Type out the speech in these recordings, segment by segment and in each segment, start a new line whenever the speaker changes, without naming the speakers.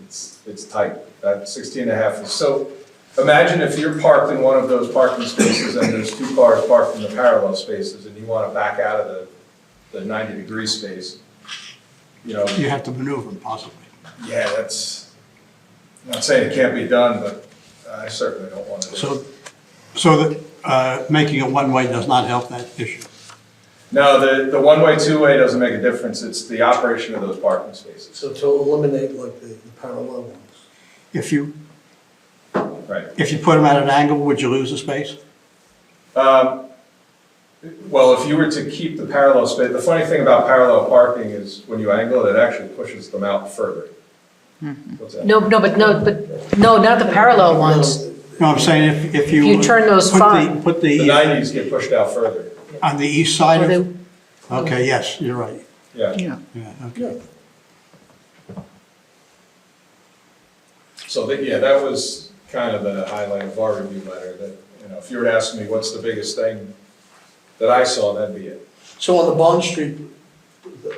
It's, it's tight, that 16 and a half. So imagine if you're parked in one of those parking spaces and there's two cars parked in the parallel spaces and you want to back out of the, the 90-degree space. You know,
You have to maneuver possibly.
yeah, that's, I'm not saying it can't be done, but I certainly don't want to do it.
So, so that, uh, making it one-way does not help that issue.
No, the, the one-way, two-way doesn't make a difference, it's the operation of those parking spaces.
So to eliminate like the the parallel ones.
If you,
Right.
if you put them at an angle, would you lose the space?
Um, Well, if you were to keep the parallel space, the funny thing about parallel parking is when you angle it, it actually pushes them out further. What's that?
No, no, but no, but, no, not the parallel ones.
No, I'm saying if, if you.
If you turn those
put the-
five.
Put
The
the, uh,
nineties get pushed out further,
on the east
Or
side
they-
of, okay, yes, you're right.
yeah.
Yeah, okay.
Yeah.
So that, yeah, that was kind of the highlight of our review letter, that, you know, if you were to ask me what's the biggest thing that I saw, that'd be it.
So on the Bond Street, the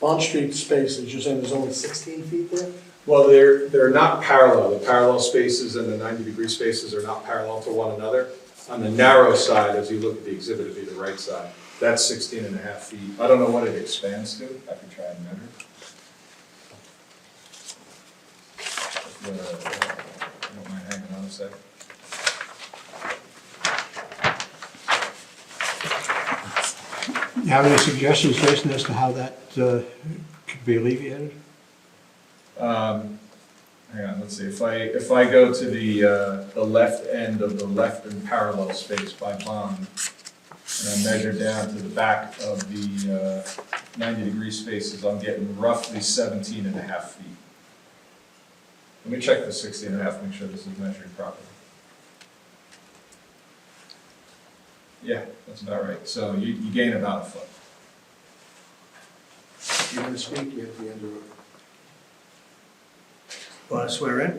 Bond Street spaces, you're saying there's only 16 feet there?
Well, they're, they're not parallel. The parallel spaces and the 90-degree spaces are not parallel to one another. On the narrow side, as you look at the exhibit, it'd be the right side. That's 16 and a half feet. I don't know what it expands to. I could try and measure. Uh, I Don't mind hanging on a sec.
You have any suggestions, Jason, as to how that uh, could be alleviated?
Um, Hang on, let's see. If I, if I go to the, uh, the left end of the left and parallel space by bond, and I measure down to the back of the ninety-degree spaces, I'm getting roughly 17 and a half feet. Let me check the 16 and a half. make sure this is measured properly. Yeah, that's about right. So you, you gain about a foot.
You're going to speak, you have to end it.
Want to swear in?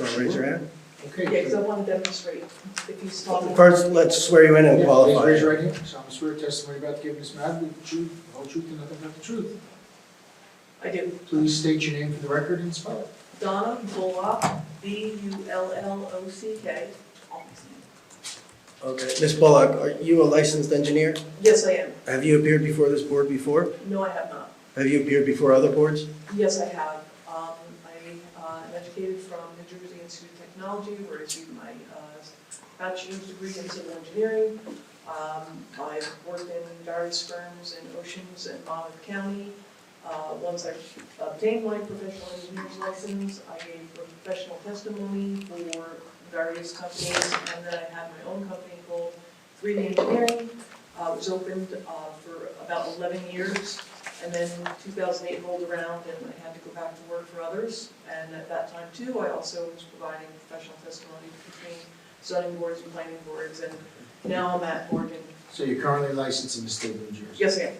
Want to raise your hand?
Okay.
Yeah, because I want to demonstrate if you stop.
First, let's swear you in and
Yeah, Please
qualify.
raise your right hand. Solemn swear testimony about giving this matter with the truth, the whole truth, and nothing but the truth.
I do.
Please state your name for the record and spell it.
Donna Bullock, B U L L O C K.
Okay. Ms. Bullock, are you a licensed engineer?
Yes, I am.
Have you appeared before this board before?
No, I have not.
Have you appeared before other boards?
Yes, I have. Um, I uh, am educated from New Jersey Institute of Technology, where I received my uh, bachelor's degree in civil engineering. Um, I've worked in various firms in Oceans and Monmouth County. Uh, Once I obtained my professional engineer's license, I gave professional testimony for various companies, and then I had my own company called 3D Engineering. Uh, It was opened uh, for about 11 years. And then 2008 rolled around and I had to go back to work for others. And at that time too, I also was providing professional testimony between zoning boards and planning boards. And now I'm at Oregon.
So you're currently licensed in the state of New Jersey?
Yes, I am.
Okay.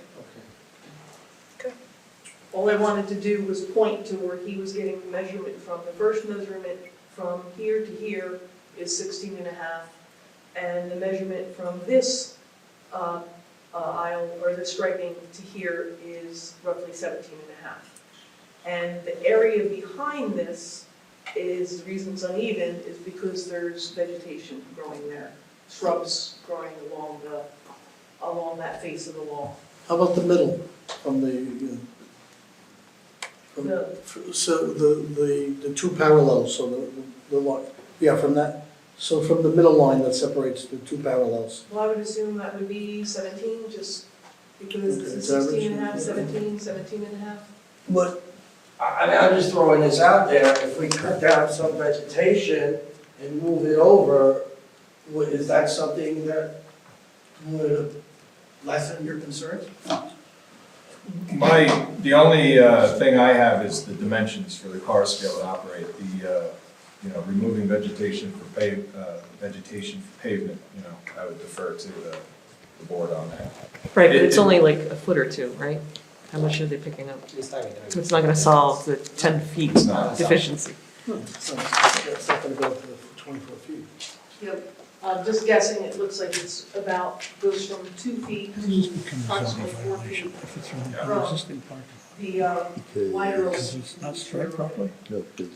All I wanted to do was point to where he was getting the measurement from. The first measurement from here to here is 16 and a half. And the measurement from this uh, uh, aisle, or the striping to here is roughly 17 and a half. And the area behind this is, the reason it's uneven is because there's vegetation growing there. Shrubs growing along the, along that face of the wall.
How about the middle from the, uh, from-
The-
f- so the, the, the two parallels, so the, the line, yeah, from that, so from the middle line that separates the two parallels.
Well, I would assume that would be seventeen, just because
Okay,
it's
it's average,
16 and a half,
yeah.
17, 17 and a half.
But.
I I mean, I'm just throwing this out there, if we cut down some vegetation and move it over, would, is that something that would lessen your concerns?
My, the only uh, thing I have is the dimensions for the cars to be able to operate, the, uh, you know, removing vegetation for pave, uh, vegetation for pavement, you know, I would defer to the the board on that.
Right, but
It-
it's
it-
only like a foot or two, right? How much are they picking up? It's not gonna solve the ten feet
It's not.
deficiency.
Hmm. So That's not gonna go up to the twenty-four feet.
Yep, I'm Uh, just guessing, it looks like it's about, goes from two feet, approximately four feet.
If it's from
Yeah.
the existing parking.
The um, wider.
Because it's not striped properly?